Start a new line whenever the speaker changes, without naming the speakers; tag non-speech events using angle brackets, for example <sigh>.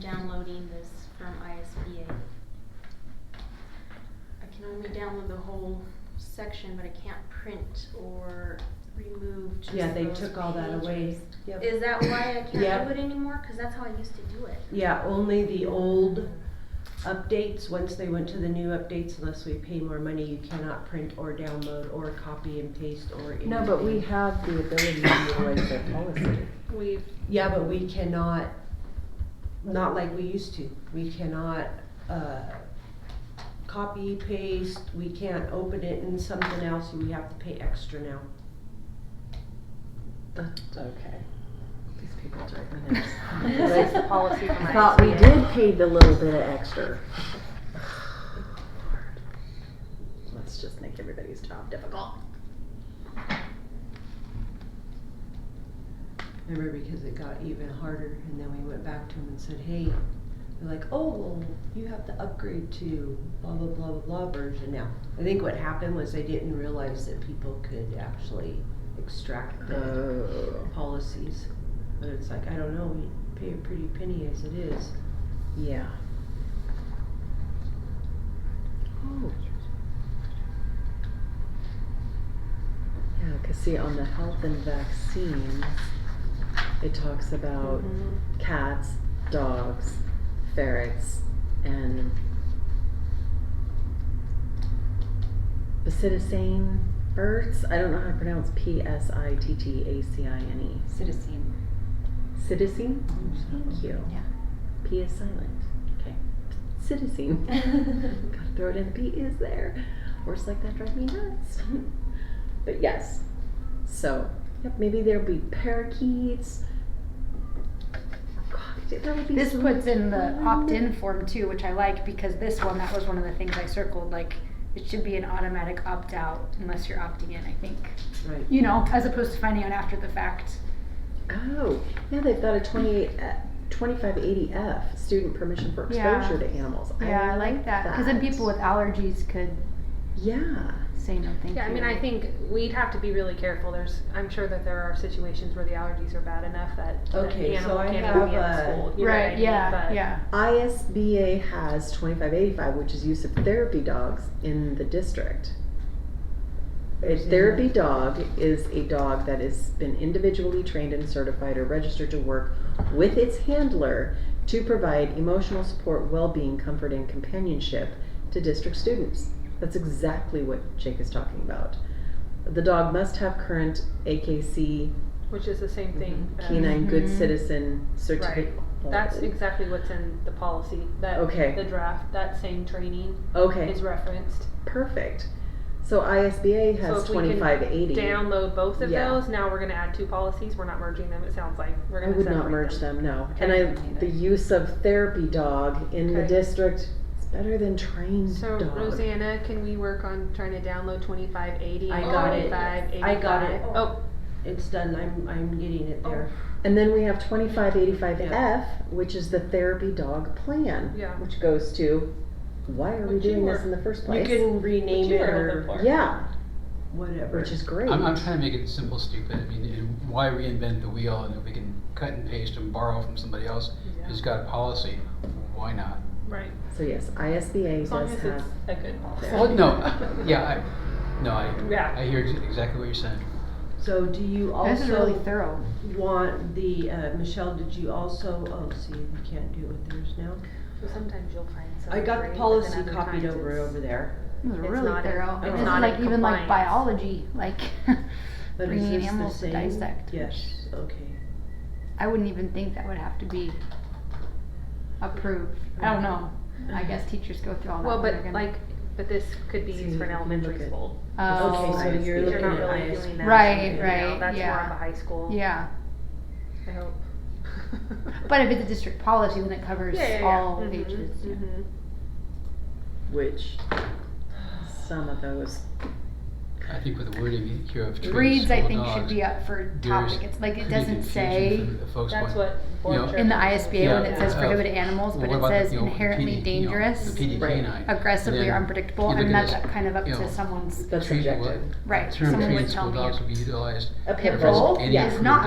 downloading this from ISBA. I can only download the whole section, but I can't print or remove just
Yeah, they
those
took all that away.
pages.
Yep.
Is that why I can't
Yep.
do it anymore? Cause that's how I used to do it.
Yeah, only
<laughs>
the old updates, once they went to the new updates, unless we pay more money, you cannot print or download or copy and paste or anything.
No, but we have the ability to utilize their policy.
We've
Yeah, but we cannot, not like we used to, we cannot, uh, copy, paste, we can't open it in something else, we have to pay extra now.
That's okay.
These people drive me nuts.
That's the
policy from
I thought we
ISBA.
did pay the little bit of <sighs> extra.
Let's just make everybody's job difficult.
Remember, because it got even harder, and then we went back to them and said, hey, they're like, oh, well, you have to upgrade to blah, blah, blah, blah, blah version now. I think what happened was they didn't realize that people could actually extract the
Oh,
policies. But it's like, I don't know, we pay a pretty penny as it is.
yeah. Oh. Yeah, cause see, on the health and vaccines, it talks about cats, dogs, ferrets, and Psidocin birds. I don't know how to pronounce P S I T T A C I N
Citizen. Mm-hmm.
E. Psidocin? Thank you.
Yeah.
P is silent. Okay. Psidocin. Gotta throw it in. The P is there. Words like that drive me nuts. <laughs> but yes. So, yep, maybe there'll be parakeets. God, that would be
This
so
Mm-hmm.
puts in the
fun.
opt-in form too, which I like, because this one, that was one of the things I circled, like, it should be an automatic opt-out unless you're opting in, I think.
Right.
You know, as opposed to finding out after the fact.
Oh, yeah, they've got a uh, 28, 2580F, student permission for
Yeah.
exposure to animals.
Yeah, I like that, cause then people with allergies could
Yeah.
say no thank you.
Yeah, I mean, I think we'd have to be really careful. There's, I'm sure that there are situations where the allergies are bad enough that that
Okay,
the
so
animal
I
can't
have
even be at
a-
school. you know what I
Right,
mean?
yeah,
But-
yeah.
ISBA has 2585, which is use of therapy dogs in the district. A therapy dog is a dog that has been individually trained and certified or registered to work with its handler to provide emotional support, well being, comfort, and companionship to district students. That's exactly what Jake is talking about. The dog must have current AKC
Which is the same
Mm-hmm.
thing. as-
canine good
Mhm.
citizen certificate.
That's exactly what's in the policy, that,
Okay.
the draft, that same training
okay.
is referenced.
Perfect. So ISBA
So
has
if we can
twenty-five eighty.
Download both of
Yeah.
those. Now we're gonna add two policies. We're not merging them, it sounds like. We're
I
gonna
would not
separate
merge them, no. And
Okay.
I, the use of therapy dog in the
Okay.
district is better than trained
So
dog.
Rosanna, can we work on trying to download twenty-five eighty?
I got it. I got it.
Oh,
It's done, I'm, I'm getting it there.
And then we have twenty-five eighty-five F, which is the therapy dog plan,
yeah.
which goes to, why are we
Which you
doing
were-
this in the first
You
place?
can rename
Which you
it
were
or
looking for.
Yeah,
whatever.
which is great.
I'm, I'm trying to make it simple, stupid. I mean, and why reinvent the wheel? And if we can cut and paste and borrow from somebody else
Yeah.
who's got a policy,
<laughs>
why not?
Right.
So yes, ISBA
As long
does
as
have,
it's a good policy.
Well, no, <laughs> yeah, I, no,
Yeah.
I, I hear ex- exactly what you're saying.
So do you
This is really
also
thorough.
want the, uh, Michelle, did you also, oh, see, we can't do it with theirs now.
So sometimes you'll find some.
I got the policy copied over over there.
It was
It's
really
not in-
thorough.
it's
This is
not
like,
in
even like
compliance.
biology, like, <laughs>
But is
bringing
this the
animals to
same?
dissect.
Yes, okay.
I wouldn't even think that would have to be approved. I don't know. I guess teachers go through all that.
Well,
when they're
but
gonna-
like, but this could be used for an
See,
elementary
look at-
school.
Oh,
Okay, so you're
You're
looking
They're not
at
really
ISBA.
doing that.
Right,
you know,
right,
That's more
yeah.
of a high school,
yeah.
I hope.
But if it's a district policy, then it covers
Yeah, yeah, yeah.
all
Mm-hmm,
Mhm,
ages. yeah.
mhm.
which, some of those,
I think with the wording here of trees,
Breeds, I
small
think, should
dogs,
be up for
there's
topic. It's like it
could be
doesn't
confusion
say
for the folks
That's
want-
what. board
You know,
chair-
in the ISBA when
Yeah,
it says
uh,
prohibited animals,
well,
but
what
it
about the,
says
you know, the
inherently
PD, you know,
dangerous,
The PD
Right.
canine.
aggressively
Then
or unpredictable,
you look
and
at
that's
this,
kind of up
you know,
to someone's
that's
Treat-
subjective.
right.
Term
Someone
treated
would tell
school
me.
dogs would be utilized
A
in
pit
reference to
bull?
any
Yes.
approved
Not